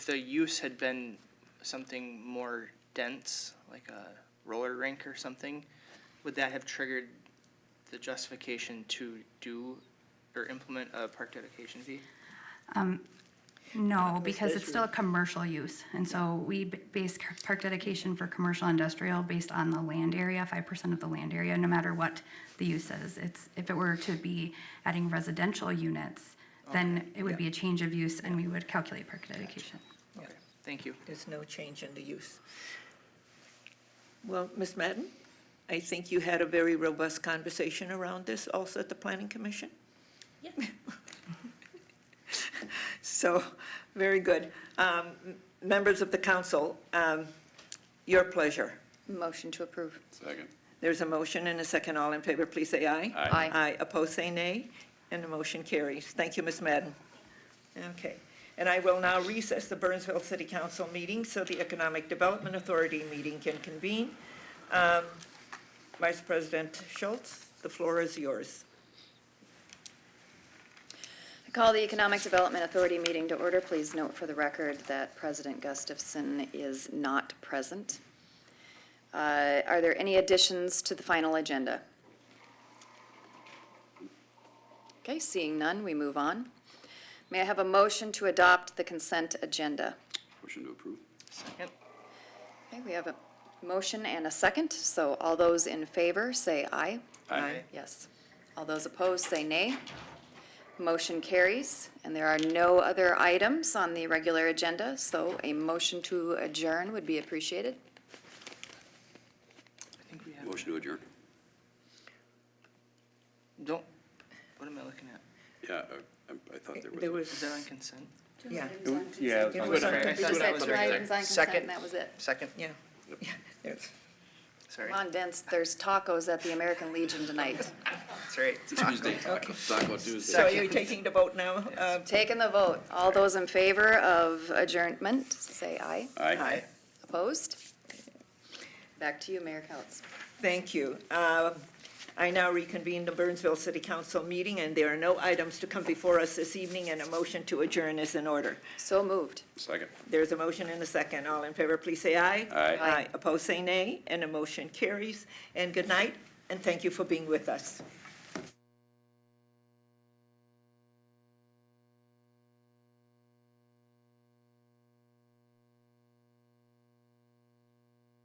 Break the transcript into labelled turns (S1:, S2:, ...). S1: if the use had been something more dense, like a roller rink or something, would that have triggered the justification to do or implement a park dedication fee?
S2: No, because
S1: that's
S2: it's still a commercial use, and so we b- base c- park dedication for commercial industrial based on the land area, five percent of the land area, no matter what the use is. It's, if it were to be adding residential units, then it would be a change of use and we would calculate park dedication.
S1: Okay, Thank you.
S3: There's no change in the use. Well, Ms. Madden, I think you had a very robust conversation around this also at the Planning Commission? Yes. So, very good. Um, m- Members of the council, um, your pleasure.
S4: Motion to approve.
S5: Second.
S3: There's a motion and a second. All in favor, please say aye.
S4: Aye. Aye.
S3: Aye. Opposed, say nay. And the motion carries. Thank you, Ms. Madden. Okay. And I will now recess the Burnsville City Council meeting so the Economic Development Authority meeting can convene. Um, Vice President Schultz, the floor is yours.
S4: I call the Economic Development Authority meeting to order. Please note for the record that President Gustafson is not present. Uh, Are there any additions to the final agenda? Okay, seeing none, we move on. May I have a motion to adopt the consent agenda?
S5: Motion to approve.
S1: Second.
S4: Okay, we have a motion and a second, so all those in favor say aye.
S3: Aye.
S4: Yes. All those opposed, say nay. Motion carries, and there are no other items on the regular agenda, so a motion to adjourn would be appreciated.
S1: I think we have,
S5: Motion to adjourn.
S1: don't, what am I looking at?
S5: Yeah, I- I- I thought there was.
S3: There
S1: Is
S3: was,
S1: that on consent?
S3: yeah,
S6: Yeah,
S3: It was on
S1: Sorry, I
S3: consent.
S1: thought
S4: Just
S1: that
S4: had
S1: was
S4: two
S1: right
S4: items
S1: there.
S4: on consent,
S1: Second.
S4: and that was it.
S1: Second,
S3: yeah. yeah, there's-
S1: sorry,
S4: Come on, Vince, there's tacos at the American Legion tonight.
S1: sorry.
S5: Tuesday, Taco Taco Tuesday.
S3: So you're taking the vote now? Uh,
S4: Taking the vote. All those in favor of adjournment, say aye.
S5: Aye.
S4: Opposed? Back to you, Mayor Couts.
S3: Thank you. Um, I now reconvene the Burnsville City Council meeting, and there are no items to come before us this evening, and a motion to adjourn is in order.
S4: So moved.
S5: Second.
S3: There's a motion and a second. All in favor, please say aye.
S5: Aye.
S4: Aye.
S3: Opposed, say nay, and the motion carries. And good night, and thank you for being with us.